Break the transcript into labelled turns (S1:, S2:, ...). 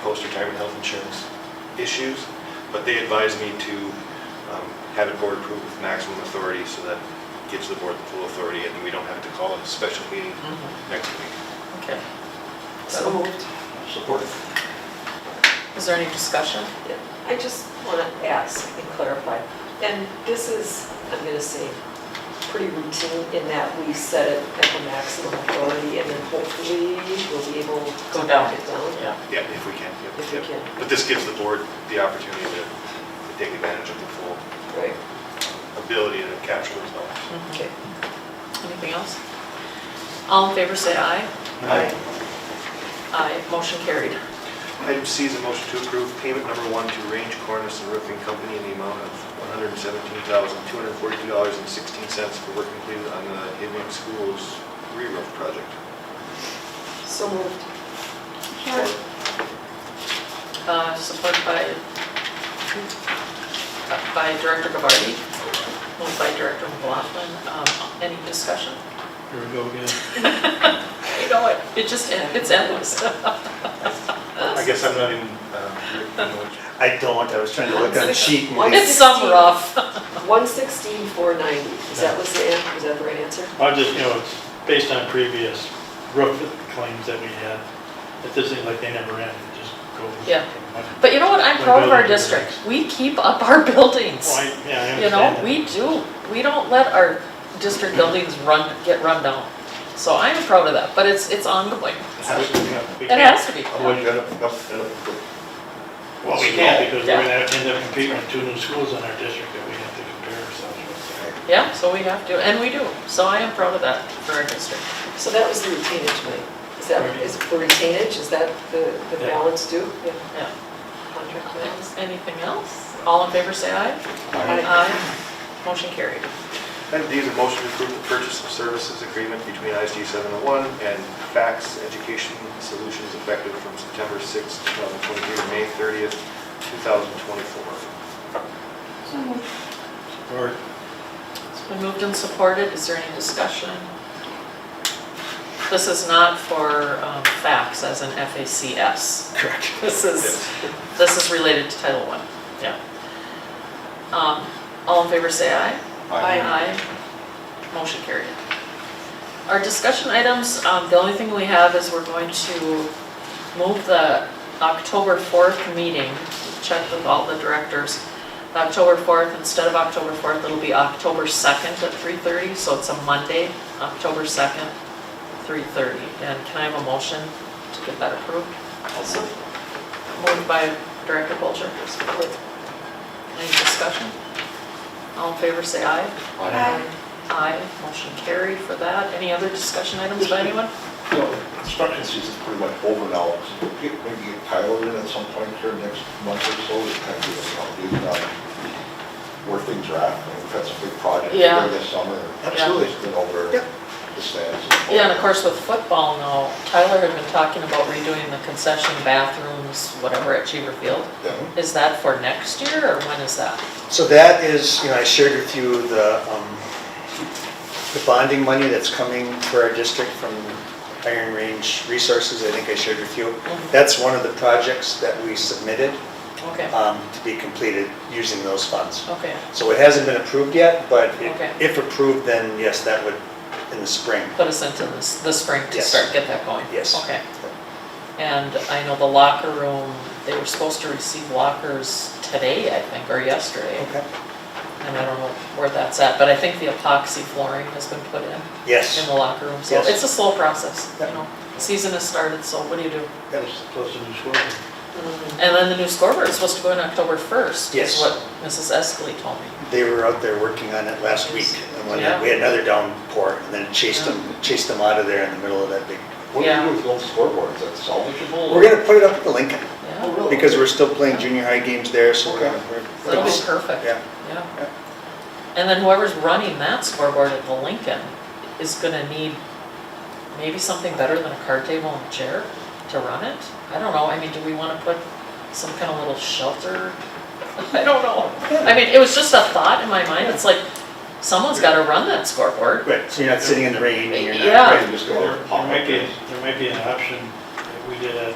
S1: post-retirement health insurance issues, but they advised me to um, have it board approved with maximum authority, so that gives the board the full authority, and we don't have to call a special meeting next week.
S2: Okay. Mm-hmm. So moved.
S1: Support.
S2: Is there any discussion?
S3: I just want to ask and clarify, and this is, I'm going to say, pretty routine in that we set it at the maximum authority and then hopefully we'll be able to
S2: Go down.
S3: knock it down.
S2: Yeah.
S1: Yeah, if we can. yep,
S3: If we
S1: yep.
S3: can.
S1: But this gives the board the opportunity to to take advantage of the full
S3: Right,
S1: ability to capture those dollars.
S3: okay.
S2: Anything else? All in favor, say aye. Aye, motion carried.
S1: Item C is a motion to approve payment number one to Range Cornice and Roofing Company in the amount of $117,242.16 for work completed on the Indian Schools re-roof project.
S3: So moved.
S2: Uh, Supported by, by Director Gavardi, moved by Director McLaughlin. Um, Any discussion?
S4: Here we go again.
S2: You know what? It just, it's endless.
S1: I guess I'm not even, um,
S5: I don't, I was trying to look on the sheet. and
S3: What?
S2: It's some rough.
S3: 116, 490, is that was the, an- was that the right answer?
S4: I just, you know, it's based on previous roof claims that we had. If this is like they never end, it just goes.
S2: Yeah. But you know what? I'm proud of our district. We keep up our buildings.
S4: Well, I- yeah, I
S2: You know,
S4: understand
S2: we do. We don't let our district buildings run, get run down. So I am proud of that, but it's, it's ongoing.
S4: that. We
S2: It
S4: can't-
S2: has to be.
S4: Well, we can't because we're
S2: Yeah.
S4: gonna end up competing with two new schools in our district that we have to compare ourselves with.
S2: Yeah, so we have to, and we do. So I am proud of that for our district.
S3: So that was the retainage, Mike. Is that, is for retainage, is that the, the
S4: Yeah.
S3: balance due? Yeah.
S2: Yeah.
S3: Contract balance?
S2: Anything else? All in favor, say aye. Aye. Motion carried.
S1: Item D is a motion to approve the purchase of services agreement between ISD 701 and Fax Education Solutions effective from September 6th, 2023 to May 30th, 2024.
S4: Or
S2: It's been moved and supported. Is there any discussion? This is not for um, facts as in FACS.
S5: Correct.
S2: This is, this is related to Title I, yeah. Um, All in favor, say aye. Aye. Motion carried. Our discussion items, um, the only thing we have is we're going to move the October 4th meeting, check with all the directors. October 4th, instead of October 4th, it'll be October 2nd at 3:30, so it's a Monday, October 2nd, 3:30. And can I have a motion to get that approved?
S3: So,
S2: Moved by Director Polter. Any discussion? All in favor, say aye. Aye, motion carried for that. Any other discussion items by anyone?
S6: So construction season's pretty much over now. Get- Maybe get Tyler in at some point here next month or so, to kind of give us an update on where things are at. I mean, We've had some big projects
S2: Yeah.
S6: there this summer. Absolutely, it's been over the stands.
S2: Yeah, and of course with football now, Tyler had been talking about redoing the concession bathrooms, whatever at Cheever Field.
S6: Yeah.
S2: Is that for next year or when is that?
S5: So that is, you know, I shared with you the, um, the bonding money that's coming for our district from Iron Range Resources, I think I shared with you. That's one of the projects that we submitted
S2: Okay,
S5: um, to be completed using those funds.
S2: okay,
S5: So it hasn't been approved yet, but i-
S2: Okay.
S5: if approved, then yes, that would, in the spring.
S2: put us into this, the spring to
S5: Yes.
S2: start, get that going.
S5: Yes.
S2: Okay. And I know the locker room, they were supposed to receive lockers today, I think, or yesterday.
S5: Okay.
S2: And I don't know where that's at, but I think the epoxy flooring has been put in. in
S5: Yes.
S2: the locker room, so
S5: Yes.
S2: it's a slow process, you
S5: Yep.
S2: know. Season has started, so what do you do?
S5: Yes.
S4: close to new schools.
S2: And then the new scoreboard is supposed to go in October first, is
S5: Yes.
S2: what Mrs. Escalay told me.
S5: They were out there working on it last week, and when we had another downpour, and then chased them, chased them out of there in the middle of that big.
S6: What do
S2: Yeah.
S6: you do with the old scoreboards? Is that salvageable?
S5: We're gonna put it up at the Lincoln,
S6: Oh,
S2: Yeah,
S6: really?
S5: because we're still playing junior high games there, so we're gonna. we're-
S2: that'll be perfect,
S5: Yeah.
S2: yeah.
S5: Yeah.
S2: And then whoever's running that scoreboard at the Lincoln is gonna need maybe something better than a card table and a chair to run it? I don't know, I mean, do we wanna put some kind of little shelter? I don't know. I mean, it was just a thought in my mind, it's like, someone's gotta run that scoreboard.
S5: Right, so you're not sitting in the rain and you're not.
S2: Yeah.
S6: Right, you just go
S4: There
S6: there,
S4: there
S6: pop up
S4: might be,
S6: there.
S4: there might be an option that we did at